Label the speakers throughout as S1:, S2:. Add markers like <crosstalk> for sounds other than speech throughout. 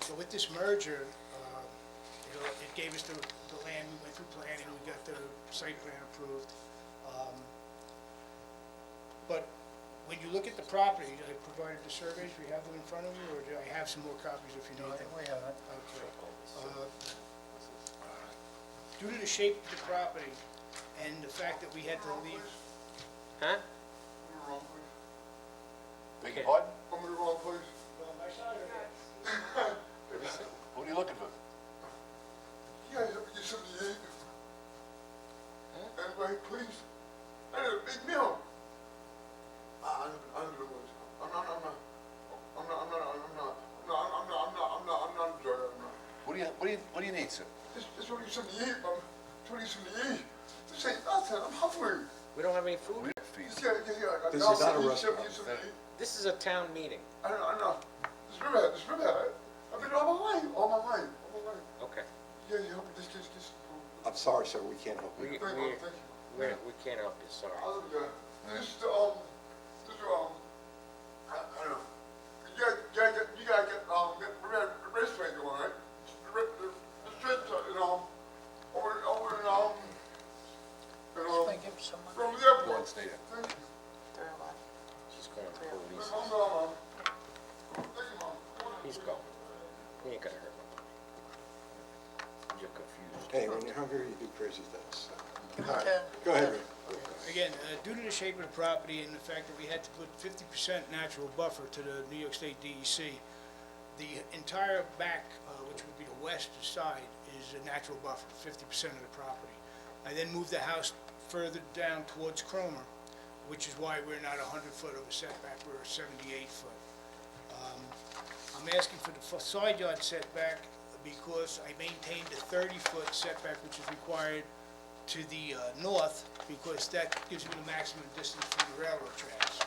S1: So with this merger, uh, you know, it gave us the, the land, we went through planning, we got the site plan approved. Um, But when you look at the property, I provided the surveys, we have them in front of you, or do I have some more copies if you
S2: No,
S1: need
S2: I
S1: them?
S2: think we have it.
S1: Okay. Uh, Due to the shape of the property and the fact that we had to leave,
S3: Huh?
S4: Beg your pardon?
S5: I'm in the wrong place.
S4: What are you looking for?
S5: You guys ever get something to eat? Everybody, please. I need a big meal. I, I live, I live in the woods. I'm not, I'm not, I'm not, I'm not, I'm not, no, I'm I'm not, I'm not, I'm not, I'm not a drugger, I'm not.
S4: What do you, what do you, what do you need, sir?
S5: Just, just want to get something to eat, mama. Just want to get something to eat. This ain't nothing, I'm hungry.
S3: We don't have any food?
S4: We don't feed
S5: Just
S4: you.
S5: gotta get, yeah, I
S6: This is
S5: got
S6: not a
S5: something to eat, something to
S6: restaurant.
S5: eat, something to eat.
S3: This is a town meeting.
S5: I know, I know. This river, this river, I've been all my life, all my life, all my life.
S3: Okay.
S5: Yeah, you help me, just, just, just.
S6: I'm sorry, sir, we can't help
S3: We, we,
S6: you.
S5: Thank you, mama, thank you.
S3: we we can't help you, sorry.
S5: Other than that, this is um, this is um, I, I don't know. You gotta, you gotta get, you gotta get um, get the red, the race train going, right? The red, the, the train, tra- you know, over, over and um, you know,
S2: Thank you so much.
S5: from the airport.
S4: Lawrence, stay there.
S5: Thank you.
S3: She's calling the
S5: Thank
S3: police.
S5: you, mom. Thank you, mom.
S3: He's gone. He ain't gonna hurt nobody. You're confused.
S6: Hey, when you're hungry, you do crazy things.
S2: Give
S6: All
S2: it
S6: right,
S2: to.
S6: Go ahead, Rick.
S1: again, uh, due to the shape of the property and the fact that we had to put fifty percent natural buffer to the New York State DEC, the entire back, uh, which would be the west side, is a natural buffer, fifty percent of the property. I then moved the house further down towards Cromer, which is why we're not hundred foot of a setback, we're seventy-eight foot. I'm asking for the f- side yard setback because I maintained a 30-foot setback, which is required to the uh, north, because that gives me the maximum distance from the railroad tracks.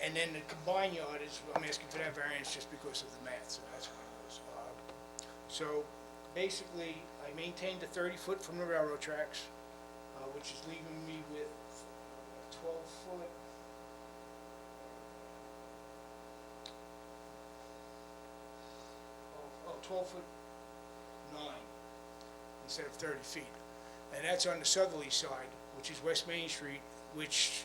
S1: And then the combined yard is, I'm asking for that variance just because of the math, so that's what it was. Uh, So basically, I maintained the 30-foot from the railroad tracks, uh, which is leaving me with 12-foot, oh, oh, 12 foot nine instead of 30 feet. And that's on the southerly side, which is West Main Street, which,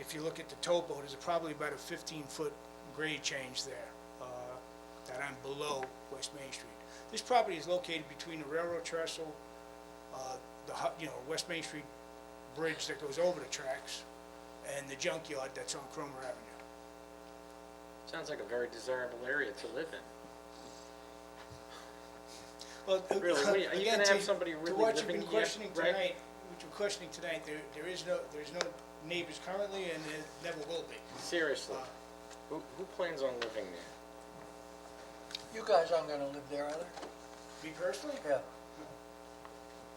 S1: if you look at the topo, there's probably about a 15-foot grade change there, uh, that I'm below West Main Street. This property is located between the railroad trestle, uh, the, hu- you know, West Main Street bridge that goes over the tracks, and the junkyard that's on Cromer Avenue.
S3: Sounds like a very desirable area to live in.
S1: Well, uh,
S3: Really, what are you- are you
S1: again,
S3: gonna have
S1: to-
S3: somebody really
S1: To what you've
S3: living
S1: been
S3: here,
S1: questioning
S3: right?
S1: tonight, what you're questioning tonight, there, there is no, there's no neighbors currently, and there never will be.
S2: Uh,
S3: Seriously. Who, who plans on living there?
S2: You guys aren't gonna live there either?
S1: Me personally,
S2: Yeah.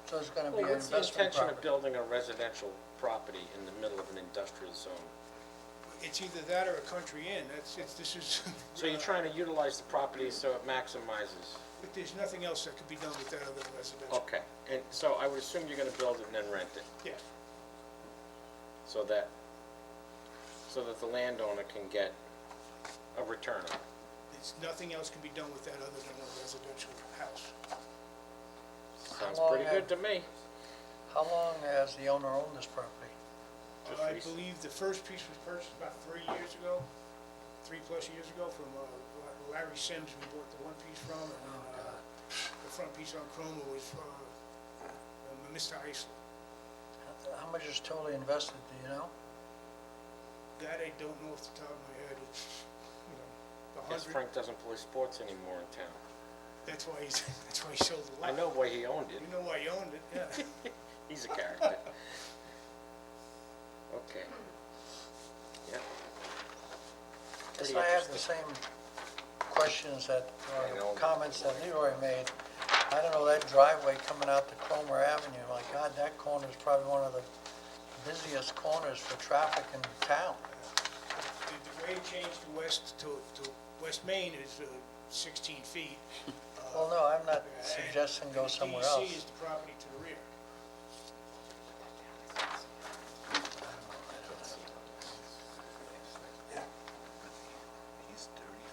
S2: So it's gonna be
S3: Well,
S2: an
S3: what's the
S2: investment
S3: intention of
S2: property.
S3: building a residential property in the middle of an industrial zone?
S1: it's either that or a country inn, that's, it's, this is. <laughs>
S3: So you're trying to utilize the property so it maximizes?
S1: But there's nothing else that could be done with that other than residential.
S3: Okay, and so I would assume you're gonna build it and then rent it,
S1: Yeah,
S3: so that, so that the landowner can get a return on it.
S1: it's, nothing else can be done with that other than a residential house.
S3: Sounds
S2: long
S3: pretty
S2: have-
S3: good to me.
S2: How long has the owner owned this property?
S3: Just
S1: I
S3: rec-
S1: believe the first piece was purchased about three years ago, three-plus years ago, from uh, Larry Sims, we bought the one piece from, and
S2: Oh,
S1: then, uh, the front piece on Chroma was uh, uh, Mr. Iceland.
S2: How much is totally invested, do you know?
S1: That I don't know off the top of my head, it's, you know, the
S3: Guess
S1: hundred,
S3: Frank doesn't play sports anymore in town.
S1: that's why he's, <laughs> that's why he sold the
S3: I
S1: lot.
S3: know why he owned it.
S1: You know why he owned it, yeah.
S3: He's a character. Okay. Yeah.
S2: Guess
S3: Pretty
S2: I have the
S3: interesting.
S2: same questions that,
S3: I
S2: or
S3: know.
S2: comments that Leroy made. I don't know, that driveway coming out to Cromer Avenue, my God, that corner is probably one of the busiest corners for traffic in town.
S1: The the grade change to west, to, to West Main is uh, sixteen feet.
S2: Well, no, I'm not
S1: and-
S2: suggesting go
S1: and
S2: somewhere
S1: DEC is
S3: E
S2: else.
S1: the property to the rear.